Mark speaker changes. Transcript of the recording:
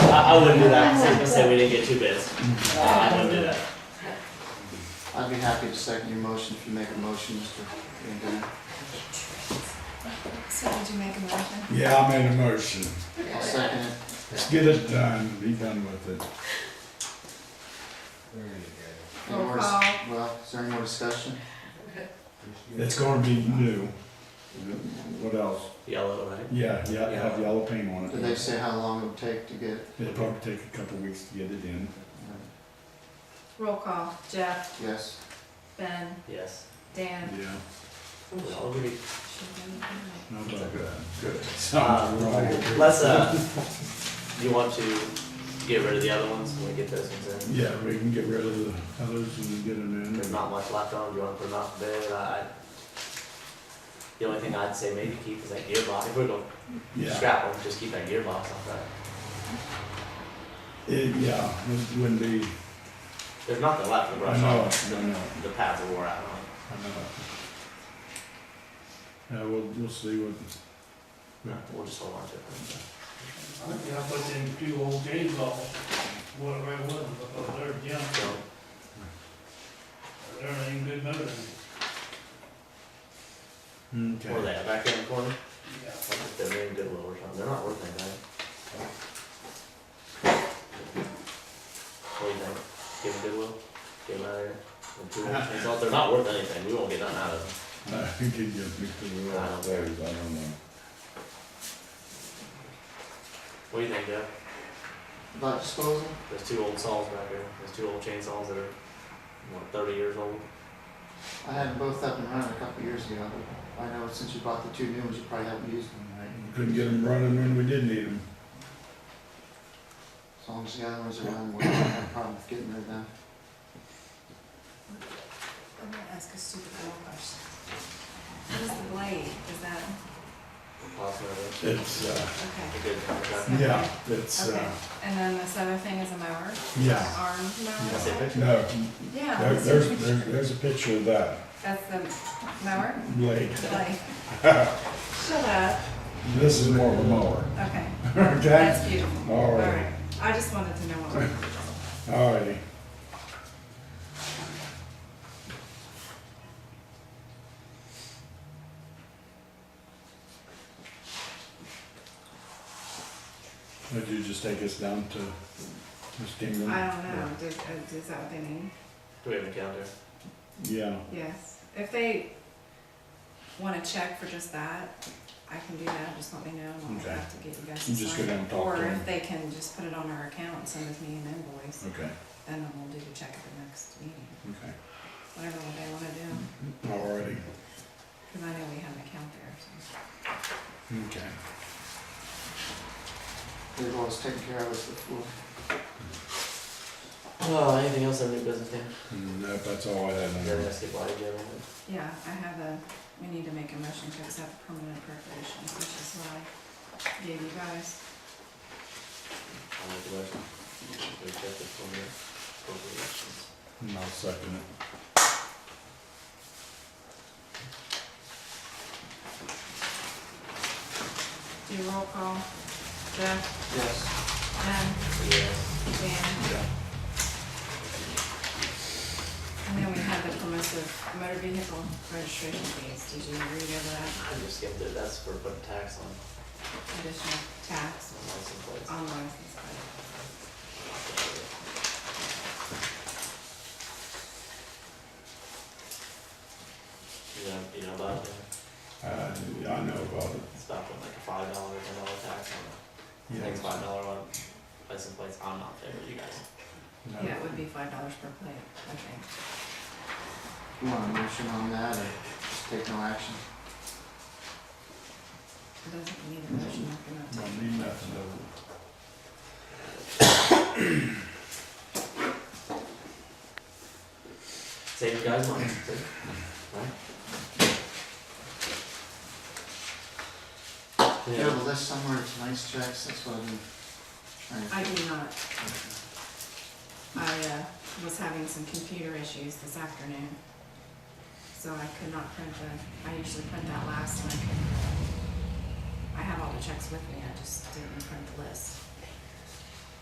Speaker 1: I wouldn't do that, since we said we didn't get two bids. Uh, I wouldn't do that.
Speaker 2: I'd be happy to second your motion if you make a motion, Mr. Van Buren.
Speaker 3: So did you make a motion?
Speaker 4: Yeah, I made a motion.
Speaker 2: I'll second it.
Speaker 4: Let's get it done, be done with it.
Speaker 5: There you
Speaker 2: Any more dis-
Speaker 3: Roll call.
Speaker 2: Well, is there any more discussion?
Speaker 5: go.
Speaker 4: It's gonna be new. What else?
Speaker 1: Yellow, right?
Speaker 4: Yeah, yeah, have yellow paint on
Speaker 2: Did they
Speaker 4: it.
Speaker 2: say how long it would take to get? it?
Speaker 4: It'll probably take a couple weeks to get it in.
Speaker 3: Roll call, Jeff,
Speaker 2: Yes,
Speaker 3: Ben,
Speaker 1: Yes.
Speaker 3: Dan.
Speaker 4: Yeah.
Speaker 1: We all agree.
Speaker 4: Not bad. Good. Ah,
Speaker 1: Um,
Speaker 4: Sounds right.
Speaker 1: Let's, uh, you want to get rid of the other ones when we get those ones in?
Speaker 4: Yeah, we can get rid of the others and get them in.
Speaker 1: There's not much left on them, do you wanna put them out for bid? I, the only thing I'd say maybe keep is that gearbox, if we're gonna
Speaker 4: Yeah,
Speaker 1: scrap them, just keep that gearbox off that.
Speaker 4: it, yeah, it wouldn't be,
Speaker 1: There's nothing left to
Speaker 4: I
Speaker 1: brush
Speaker 4: know,
Speaker 1: off,
Speaker 4: it, I know, it,
Speaker 1: the pads are wore out on.
Speaker 4: I know. it. Yeah, we'll, we'll see what,
Speaker 1: We'll just hold on to it.
Speaker 6: Yeah, but them two old days off, whatever it was, but they're young,
Speaker 1: So,
Speaker 6: they're ain't good motor.
Speaker 1: where
Speaker 4: hmm, okay.
Speaker 1: they at, back there in the corner?
Speaker 6: Yeah.
Speaker 1: They're doing good little work on, they're not worth anything. What do you think? Give them goodwill? Give them out of here? Them two old chains off? They're not worth anything, we won't get nothing out of
Speaker 4: I think it gives me the world,
Speaker 1: I don't
Speaker 4: I don't know.
Speaker 1: them. What do you think, Jeff?
Speaker 2: about disposal?
Speaker 1: There's two old saws back there, there's two old chainsaws that are, what, thirty years old?
Speaker 2: I had them both up and running a couple years ago. I know since you bought the two new ones, you probably haven't used them, right?
Speaker 4: Couldn't get them running when we did need them.
Speaker 2: As long as the other ones are running, we don't have a problem with getting rid of them.
Speaker 3: I'm gonna ask a stupid little question. What is the blade, is that,
Speaker 1: Possibly,
Speaker 4: It's, uh,
Speaker 3: okay,
Speaker 1: a good contract.
Speaker 4: yeah, it's,
Speaker 3: okay.
Speaker 4: uh,
Speaker 3: And then this other thing is a mower,
Speaker 4: yeah,
Speaker 3: arm
Speaker 1: That's
Speaker 3: mower?
Speaker 1: it.
Speaker 4: no,
Speaker 3: Yeah.
Speaker 4: there, there's, there's, there's a picture of that
Speaker 3: That's the mower,
Speaker 4: blade.
Speaker 3: the blade. Shut up,
Speaker 4: This is more of a mower,
Speaker 3: okay,
Speaker 4: okay?
Speaker 3: that's beautiful,
Speaker 4: All
Speaker 3: all
Speaker 4: right,
Speaker 3: right, I just wanted to know what.
Speaker 4: all righty. Would you just take us down to Miss Dingley?
Speaker 3: I don't know, does, uh, is that what they mean?
Speaker 1: Do we have a calendar?
Speaker 4: Yeah,
Speaker 3: Yes, if they wanna check for just that, I can do that, just let me know, and I'll
Speaker 4: Okay.
Speaker 3: have to get you guys to
Speaker 4: You just go
Speaker 3: sign it.
Speaker 4: down and talk to
Speaker 3: Or
Speaker 4: them.
Speaker 3: if they can just put it on our account and send us me an invoice,
Speaker 4: okay,
Speaker 3: then we'll do the check at the next meeting,
Speaker 4: okay,
Speaker 3: whatever what they wanna do,
Speaker 4: all righty,
Speaker 3: cause I know we have an account there, so.
Speaker 4: okay.
Speaker 2: They've always taken care of us before.
Speaker 1: Oh, anything else on new business, Dan?
Speaker 4: Nope, Mm, that's all I had. on
Speaker 1: You're
Speaker 4: that.
Speaker 1: gonna skip light again,
Speaker 3: Yeah, I have a, we need to make a motion to accept permanent appropriations, which is what I gave you guys.
Speaker 1: I'll make a motion. We check this one here. Appropriations.
Speaker 4: And I'll second it.
Speaker 3: Do you roll call, Jeff,
Speaker 2: Yes,
Speaker 3: Ben,
Speaker 1: Yes.
Speaker 3: Dan?
Speaker 4: Yeah.
Speaker 3: And then we have the permissive motor vehicle registration fees, did you read over that
Speaker 1: I just skipped it, that's for putting tax on,
Speaker 3: additional tax
Speaker 1: on license plates.
Speaker 3: on license plate?
Speaker 1: You know, you know about that?
Speaker 4: Uh, yeah, I know about it,
Speaker 1: It's about putting like a five dollar, ten dollar tax on it. I think it's
Speaker 4: yeah.
Speaker 1: five dollar on license plates, I'm not there, you guys.
Speaker 4: no.
Speaker 3: Yeah, it would be five dollars per plate, I think.
Speaker 2: you want a motion on that or just take no action?
Speaker 3: It doesn't need a motion, I cannot
Speaker 4: No,
Speaker 3: take.
Speaker 4: need nothing to-
Speaker 1: Save you guys money, see? Right?
Speaker 2: Do you have a list somewhere of tonight's checks? That's what I've been trying to.
Speaker 3: I do not, I, uh, was having some computer issues this afternoon, so I could not print the, I usually print that last one. I had all the checks with me, I just didn't print the list.